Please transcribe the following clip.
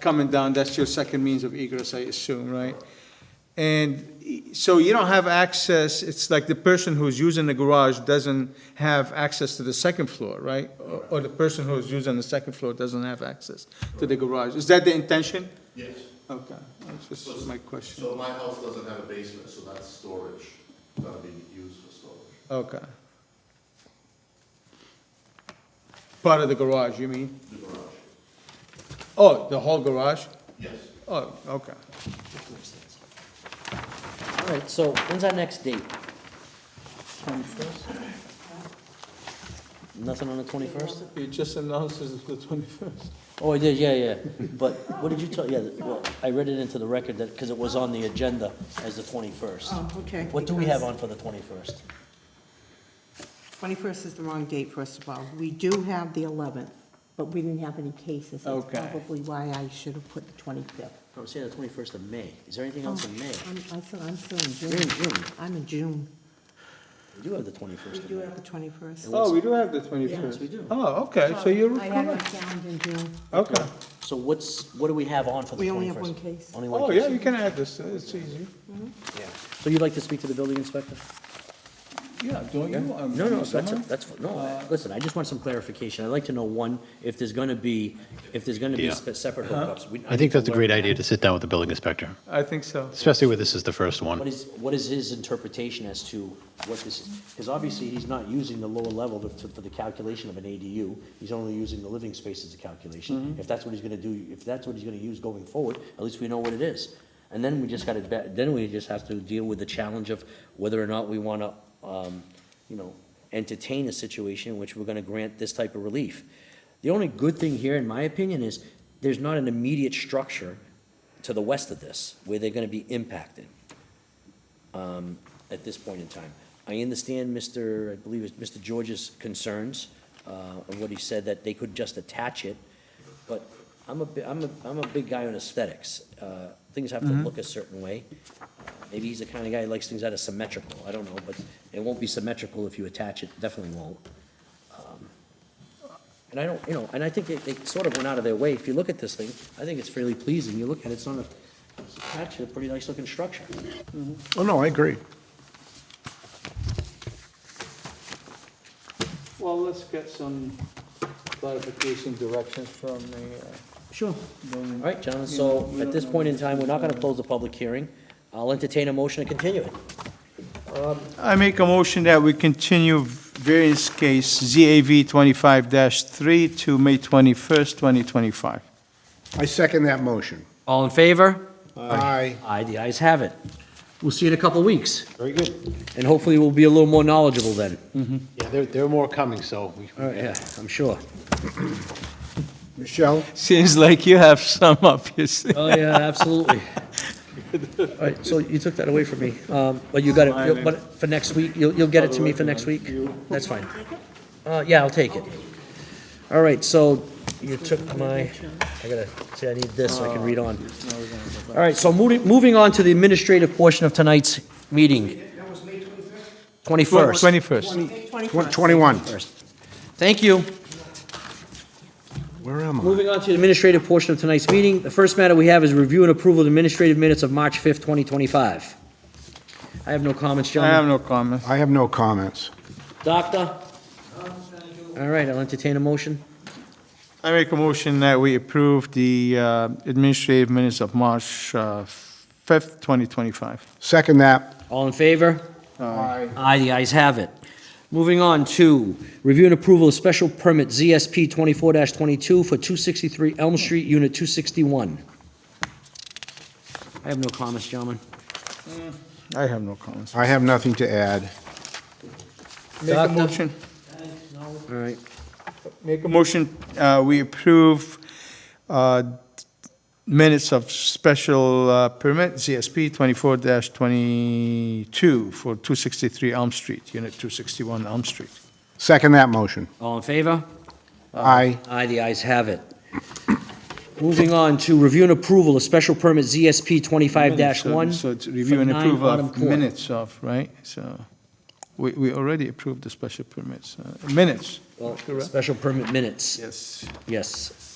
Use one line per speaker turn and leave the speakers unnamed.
coming down, that's your second means of egress, I assume, right? And y- so you don't have access, it's like the person who's using the garage doesn't have access to the second floor, right? Or- Or the person who's using the second floor doesn't have access to the garage. Is that the intention?
Yes.
Okay, that's just my question.
So my house doesn't have a basement, so that's storage, gonna be used for storage.
Okay. Part of the garage, you mean?
The garage,
Oh, the whole garage?
yes.
Oh, okay.
All right, so when's our next date? Twenty-first? Nothing on the twenty-first?
It just announces the twenty-first.
Oh, I did, yeah, yeah. But what did you tell, yeah, well, I read it into the record that, because it was on the agenda as the twenty-first.
Oh, okay.
What do we have on for the twenty-first?
21st is the wrong date, first of all. We do have the 11th, but we didn't have any cases.
Okay.
That's probably why I should have put the 25th.
I'm saying Oh, the twenty-first of May. Is there anything else in May?
I'm, I'm still, I'm still in
You're in
June.
June.
I'm in June.
We do have the twenty-first of May.
The 21st.
Oh, we do have the twenty-first.
Yes, we do.
Oh, okay, so you're
I have
correct.
it down in June.
Okay.
So what's, what do we have on for the twenty-first?
We only have one case.
Only one
Oh,
case?
yeah, you can add this, it's easy.
Yeah. So you'd like to speak to the building inspector?
Yeah, don't you? Uh, um,
No, no,
Mr.
that's,
Hunt?
that's, no, I- listen, I just want some clarification. I'd like to know, one, if there's gonna be, if there's gonna be
Yeah.
spe- separate
Uh-huh.
hookups. We-
I think that's a great idea to sit down with the building inspector,
I think so.
especially where this is the first
What
one.
is, what is his interpretation as to what this is? Because obviously, he's not using the lower level to- to- for the calculation of an ADU. He's only using the living space as a calculation. If that's what he's gonna do, if that's what he's gonna use going forward, at least we know what it is. And then we just gotta, be- then we just have to deal with the challenge of whether or not we wanna, um, you know, entertain a situation in which we're gonna grant this type of relief. The only good thing here, in my opinion, is there's not an immediate structure to the west of this where they're gonna be impacted at this point in time. I understand Mr., I believe it's Mr. George's concerns, uh, and what he said, that they could just attach it, but I'm a, bi- I'm a, I'm a big guy on aesthetics. Uh, Things have to look a certain way. Maybe he's the kind of guy who likes things that are symmetrical, I don't know, but it won't be symmetrical if you attach it, definitely won't. Um, And I don't, you know, and I think they, they sort of went out of their way, if you look at this thing, I think it's fairly pleasing, you look at it, it's on a, it's attached to a pretty nice looking structure.
Oh, no, I agree.
Well, let's get some clarification directions from the
Sure. All
building.
right, gentlemen, so at this point in time, we're not gonna close the public hearing. I'll entertain a motion to continue it.
I make a motion that we continue variance case ZAV twenty-five three to May twenty-first, twenty twenty-five.
I second that motion.
All in favor?
Aye.
Aye, the ayes have it. We'll see you in a couple of weeks,
Very good.
and hopefully we'll be a little more knowledgeable then.
Yeah, there, there are more coming, so we
All right, yeah, I'm sure.
Michelle?
Seems like you have some up your sleeve.
Oh, yeah, absolutely. All right, so you took that away from me, um, but you got it, but for next week, you'll, you'll get it to me for next week? That's fine. Uh, yeah, I'll take it. All right, so you took my, I gotta, see, I need this so I can read on. All right, so moving, moving on to the administrative portion of tonight's meeting. Twenty-first.
Twenty-first.
Tw- 21.
Thank you.
Where am I?
Moving on to the administrative portion of tonight's meeting, the first matter we have is review and approval of administrative minutes of March 5th, 2025. I have no comments,
I have
gentlemen.
no comments.
I have no comments.
Doctor? All right, I'll entertain a motion.
I make a motion that we approve the uh, administrative minutes of March uh, 5th, 2025.
Second that.
All in favor?
Aye.
Aye, the ayes have it. Moving on to review and approval of special permit ZSP 24-22 for 263 Elm Street, Unit 261. I have no comments, gentlemen.
I have no comments.
I have nothing to add.
Make a
Doctor?
motion,
All right.
make a motion, uh, we approve uh, minutes of special uh, permit, ZSP 24-22 for 263 Elm Street, Unit 261 Elm Street.
Second that motion.
All in favor?
Uh,
Aye.
Aye, the ayes have it. Moving on to review and approval of special permit ZSP
Minutes, so-
25-1.
So it's
for
review and
9
approve
Autumn
of
Court.
minutes of, right? So we we already approved the special permits, uh, minutes.
Well,
correct?
Special permit minutes,
Yes.
yes.